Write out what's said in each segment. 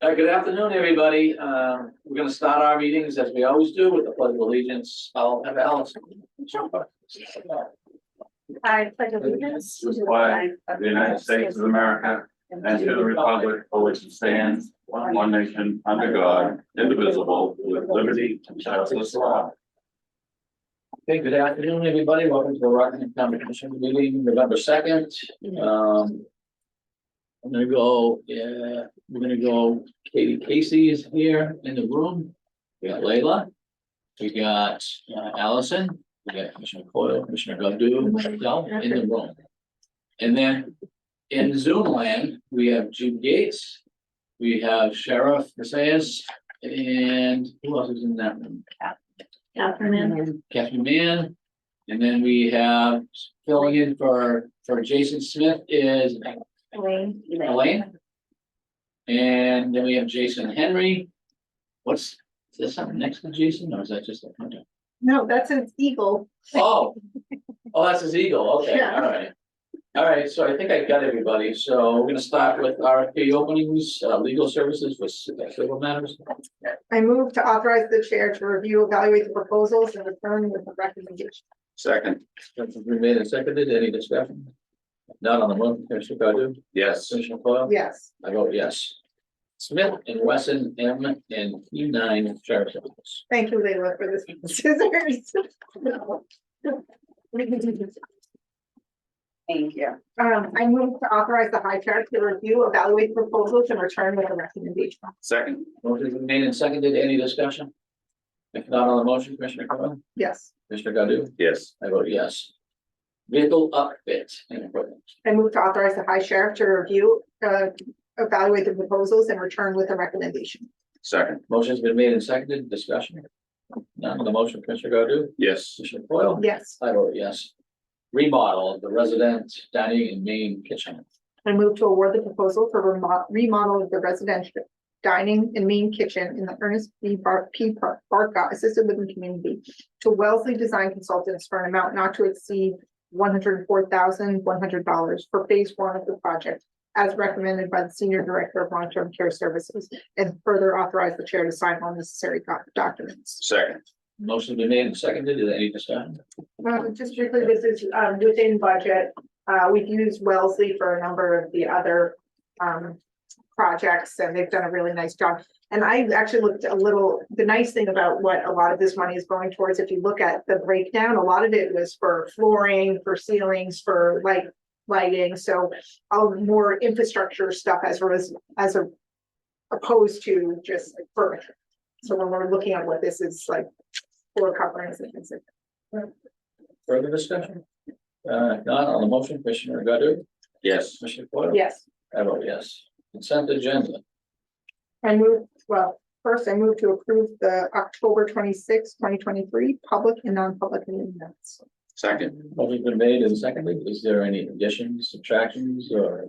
Uh, good afternoon, everybody. Um, we're gonna start our meetings as we always do with the pledge of allegiance. I'll have Alice. I pledge allegiance to the Why? flag of the United States of America and to the republic for which it stands, one nation, under God, indivisible, with liberty and justice for all. Okay, good afternoon, everybody. Welcome to the Rockingham County Commission meeting, November second. Um. I'm gonna go, yeah, we're gonna go Katie Casey is here in the room. We got Layla. We got uh, Allison, we got Commissioner Coyle, Commissioner Godu, myself in the room. And then in Zoom land, we have Jude Gates. We have Sheriff Casillas and who else is in that room? Catherine. Catherine Mann. And then we have filling in for, for Jason Smith is Elaine. Elaine. And then we have Jason Henry. What's, is there something next to Jason or is that just? a- No, that's an eagle. Oh, oh, that's his eagle. Okay, Yeah. all right. All right, so I think I got everybody. So we're gonna start with RFP openings, uh, legal services for uh, civil matters. I move to authorize the chair to review, evaluate the proposals and return with a recommendation. Second, Motion's been made and seconded. Any discussion? Not on the motion, Commissioner Godu? yes, Commissioner Coyle? Yes, I vote yes. Smith and Wesson, M and E nine sheriff's office. thank you, Leila, for this scissors. Thank you. Um, I move to authorize the high chair to review, evaluate proposals and return with a recommendation. second, Motion's been made and seconded. Any discussion? If not on the motion, Commissioner Coyle, Yes, Commissioner Godu, yes, I vote yes. Vehicle upfit and equipment. I move to authorize the high sheriff to review, uh, evaluate the proposals and return with a recommendation. second, Motion's been made and seconded. Discussion. None on the motion, Commissioner Godu, yes, Commissioner Coyle, Yes, I vote yes. Remodel of the resident dining and main kitchen. I move to award the proposal for remo- remodel of the residential dining and main kitchen in the Ernest B. Bar- P. Bar- Barca Assisted Living Community to Wellesley Design Consultants for an amount not to exceed one hundred four thousand one hundred dollars for phase one of the project as recommended by the Senior Director of Long-Term Care Services and further authorize the chair to sign all necessary doc- documents. second, Motion's been made and seconded. Is there any discussion? Well, just strictly, this is um within budget. Uh, we've used Wellesley for a number of the other um projects and they've done a really nice job. And I actually looked a little, the nice thing about what a lot of this money is going towards, if you look at the breakdown, a lot of it was for flooring, for ceilings, for like lighting, so all more infrastructure stuff as well as as a opposed to just like furniture. So when we're looking at what this is like for coverings and things like Further discussion? Uh, if not on the motion, Commissioner Godu, yes, Commissioner Coyle? Yes, I vote yes. Consent agenda. I move, well, first I move to approve the October twenty-sixth, twenty twenty-three, public and non-public meeting minutes. second, Motion's been made and seconded. Is there any additions, subtractions, or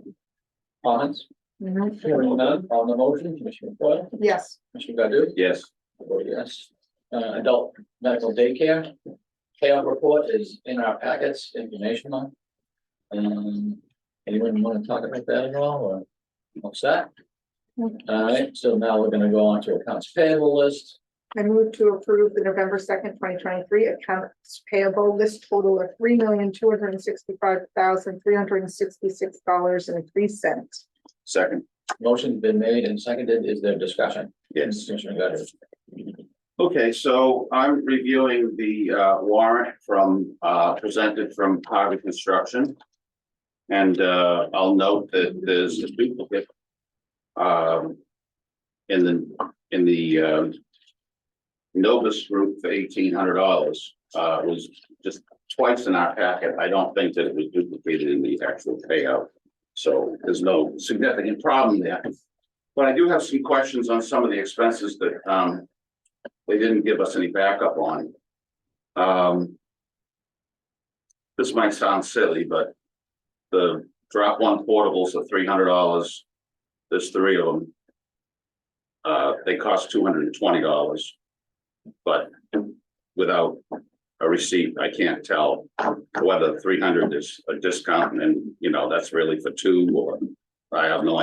comments? Hearing none on the motion, Commissioner Foil, Yes, Commissioner Godu? yes, I vote yes. Uh, adult medical daycare. Payout report is in our packets, informational. Um, anyone want to talk about that at all, or what's that? Mm. All right, so now we're gonna go on to accounts payable list. I move to approve the November second, twenty twenty-three accounts payable list total of three million, two hundred and sixty-five thousand, three hundred and sixty-six dollars and three cents. second, Motion's been made and seconded. Is there discussion? yes. Commissioner Godu? Okay, so I'm reviewing the uh, warrant from, uh, presented from Harvey Construction. And uh, I'll note that there's a duplicate. um, In the, in the um, Novus group for eighteen hundred dollars. Uh, It was just twice in our packet. I don't think that it was duplicated in the actual payout. So there's no significant problem there. But I do have some questions on some of the expenses that um, they didn't give us any backup on. Um. This might sound silly, but the drop one portables are three hundred dollars. There's three of them. Uh, they cost two hundred and twenty dollars. But without a receipt, I can't tell whether three hundred is a discount and, you know, that's really for two or I have no idea.